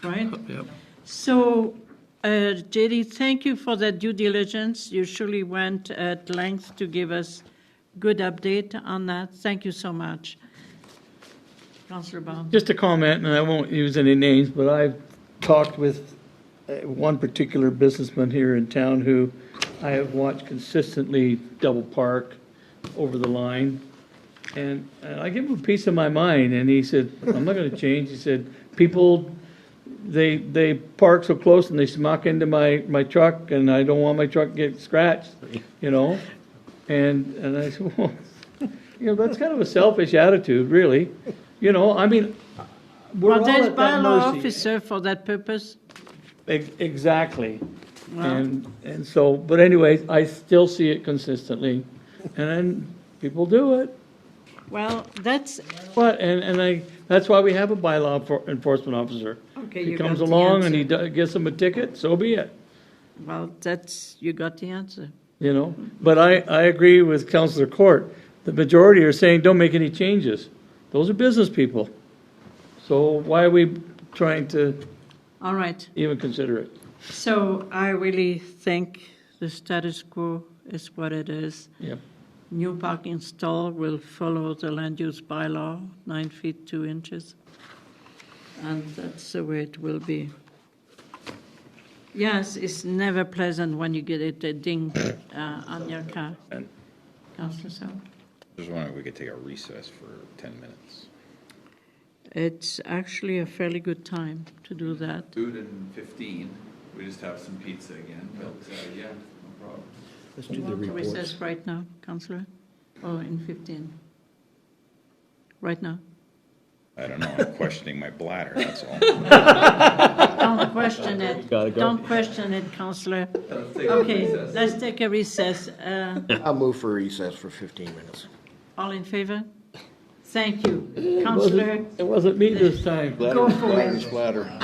right? Yep. So, uh, JD, thank you for that due diligence. You surely went at length to give us good update on that. Thank you so much. Councillor Baum. Just a comment, and I won't use any names, but I've talked with uh, one particular businessman here in town who I have watched consistently double park over the line. And and I give him a piece of my mind, and he said, I'm not gonna change. He said, people, they, they park so close and they smack into my, my truck, and I don't want my truck to get scratched, you know? And, and I said, well, you know, that's kind of a selfish attitude, really. You know, I mean, we're Well, all there's at that bylaw mercy. officer for that purpose. Ex- Exactly. Wow. And, and so, but anyways, I still see it consistently. And then people do it. Well, that's, But, and, and I, that's why we have a bylaw for- enforcement officer. okay, He you got comes the along and he answer. do- gets them a ticket, so be it, Well, that's, you got the answer. you know? But I, I agree with Counselor Court. The majority are saying, don't make any changes. Those are business people. So why are we trying to All right. even consider it? So I really think the status quo is what it is. Yep. New parking stall will follow the land use bylaw, nine feet, two inches. And that's the way it will be. Yes, it's never pleasant when you get it a ding uh, on your car. Councillor Sal? Just wondering if we could take a recess for 10 minutes. It's actually a fairly good time to do that. Food and 15. We just have some pizza again, but uh, yeah, no problem. Let's Do do you the want to reports. recess right now, Councillor? Or in 15? Right now? I don't know, I'm questioning my bladder, that's all. Don't question it. Gotta go. Don't question it, Counselor. Okay, let's take a recess. Uh, I'll move for recess for 15 minutes. All in favor? Thank you. Counselor, It wasn't me this time. go for it. Splatter.